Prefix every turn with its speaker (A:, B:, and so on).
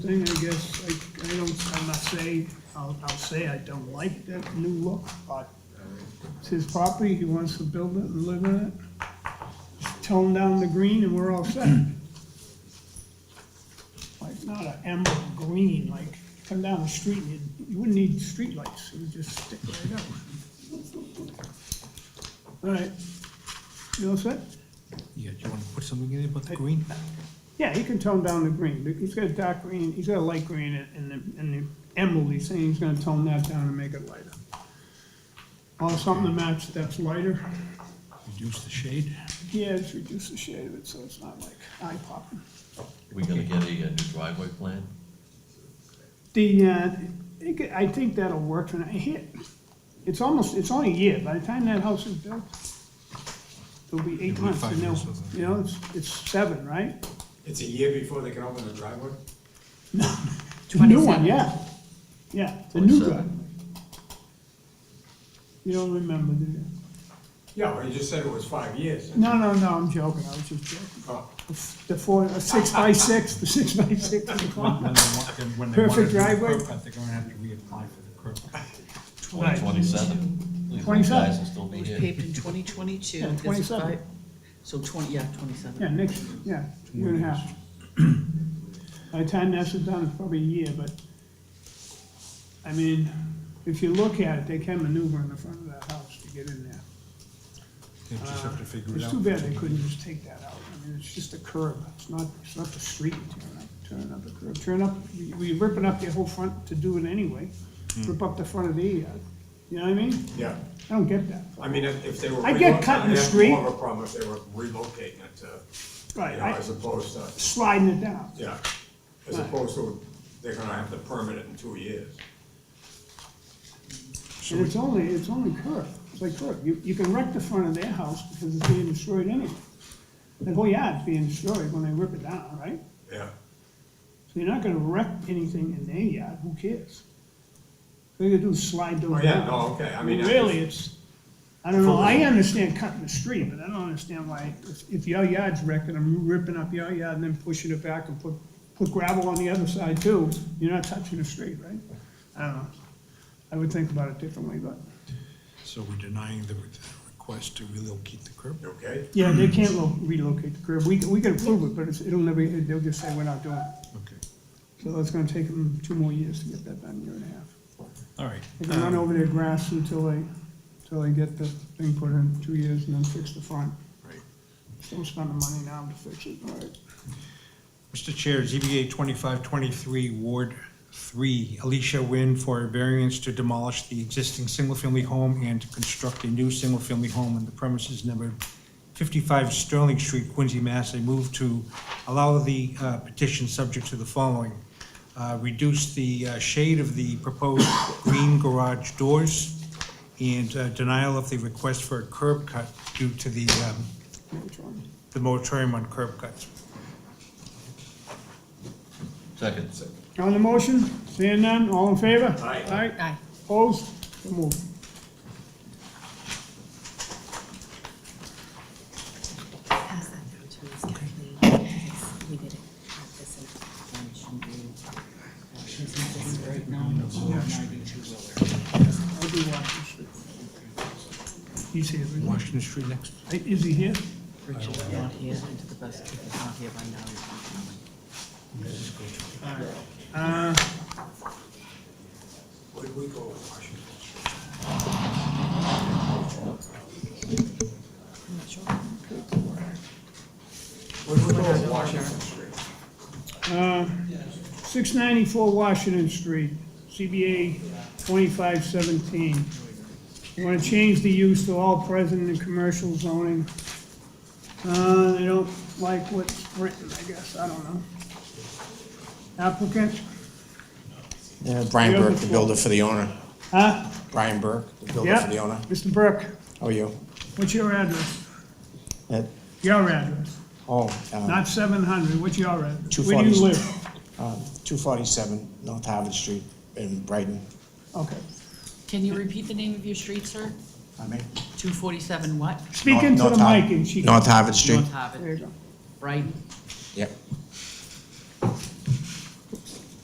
A: thing, I guess, I, I don't, I'm not saying, I'll, I'll say I don't like that new look, but it's his property, he wants to build it and live in it. Just Tone down the green and we're all set. Like, not an emerald green, like, come down the street and you, you wouldn't need streetlights, it would just stick right up. All right, you all set?
B: Yeah, do you want to put something in there about the green?
A: Yeah, he can tone down the green, but he's got a dark green, he's got a light green, and- and the, and the emerald, he's saying he's gonna tone that down and make it lighter. Or something to match that's lighter,
B: Reduce the shade?
A: yeah, just reduce the shade of it, so it's not like eye popping.
C: We gonna get a uh, new driveway plan?
A: The, uh, it could- I think that'll work, and I hit, it's almost, it's only a year, by the time that house is built, it'll be eight
B: It'll be
A: months,
B: five
A: and
B: years
A: they'll,
B: or something.
A: you know, it's, it's seven, right?
D: It's a year before they can open the driveway?
A: The new one, yeah. Yeah, the new guy.
C: 27.
A: You don't remember, do you?
D: Yeah, well, you just said it was five years.
A: No, no, no, I'm joking, I was just joking.
D: Oh,
A: The four, the six by six, the six by six. is
B: When
A: gone.
B: when they want- then when they want
A: Perfect
B: it to be
A: driveway.
B: curb cut, They're gonna have to reapply for the curb. cut.
C: Twenty twenty-seven?
A: 27.
C: Guys will still
E: It
C: be
E: was
C: here.
E: paved in twenty twenty-two.
A: Yeah, 27.
E: So twenty, yeah,
A: Yeah,
E: twenty-seven.
A: next, yeah, year and a half. By the time that's done, it's probably a year, but, I mean, if you look at it, they can maneuver in the front of that house to get in there.
B: They just have to figure it
A: It's
B: out.
A: too bad they couldn't just take that out, I mean, it's just a curb, it's not, it's not the street, turn up, turn up the curb, turn up, we- we ripping up your whole front to do it anyway. Rip up the front of the, yard. you know what I mean?
D: Yeah,
A: I don't get that.
D: I mean, if if they were.
A: I get
D: relocate-
A: cut in the
D: I'd have
A: street.
D: More of a problem if they were relocating it to, you
A: Right,
D: know,
A: I-
D: as opposed to,
A: sliding it down.
D: yeah, as
A: Right.
D: opposed to, they're gonna have to permit it in two years.
A: And it's only, it's only curb, it's like curb. You, you can wreck the front of their house because it's being destroyed anyway. The whole yard's being destroyed when they rip it down, right?
D: Yeah,
A: So you're not gonna wreck anything in their yard, who cares? All you gotta do is slide
D: oh,
A: those
D: yeah,
A: down.
D: no, okay, I mean. I-
A: Really, it's, I don't know, I understand cutting the street, but I don't understand why, if- if your yard's wrecking, I'm ripping up your yard and then pushing it back and put, put gravel on the other side too, you're not touching the street, right? I don't know, I would think about it differently, but,
B: So we're denying the re- request to relocate the curb?
D: You okay?
A: yeah, they can't lo- relocate the curb, we, we can approve it, but it's, it'll never, they'll just say we're not doing it.
B: Okay,
A: So that's gonna take them two more years to get that done, year and a half.
B: all right.
A: They can run over their grass until they, until they get the thing put in, two years, and then fix the front.
B: Right.
A: Still spending money now to fix it, all right.
B: Mr. Chair, ZBA 2523, Ward 3, Alicia Nguyen for a variance to demolish the existing single-family home and to construct a new single-family home on the premises numbered 55 Sterling Street, Quincy, Mass. I move to allow the uh, petition subject to the following. Uh, Reduce the uh, shade of the proposed green garage doors and uh, denial of the request for a curb cut due to the um,
A: Which one?
B: the moratorium on curb cuts.
C: Second.
A: On the motion, seeing none, all in favor?
D: Aye.
A: Aye,
E: Aye.
A: opposed, so moved.
F: Pass that down to Ms. Kathleen, because we didn't have this in our information.
E: She's not just right now, but she has ninety-two wheeler.
A: I'll do Washington Street. He's here, isn't
B: Washington Street next.
A: he? Hey, is he here?
E: Richard's not here, and to the best of his not here by now, he's not coming.
A: Uh,
D: Where did we go with Washington?
E: I'm not sure.
D: Where did we go with Washington Street?
A: uh, six ninety-four Washington Street, CBA twenty-five seventeen. You wanna change the use to all present in commercial zoning. Uh, they don't like what's written, I guess, I don't know. Applicant,
G: Yeah, Brian
A: You have
G: Burke,
A: the
G: the
A: floor.
G: builder for the owner.
A: huh?
G: Brian Burke, the builder
A: Yeah,
G: for the owner.
A: Mr. Burke,
G: How are you?
A: what's your address?
G: Uh,
A: Your address,
G: Oh, uh,
A: not seven hundred, what's your address?
G: 240.
A: Where do you live?
G: uh, 247 North Harvard Street in Brighton.
A: Okay,
E: Can you repeat the name of your street, sir?
G: I mean,
E: Two forty-seven what?
A: speak into
G: North
A: the
G: Har-
A: mic and she.
G: North Harvard Street,
E: North
A: There you
E: Harvard,
A: go.
E: right?
G: yep.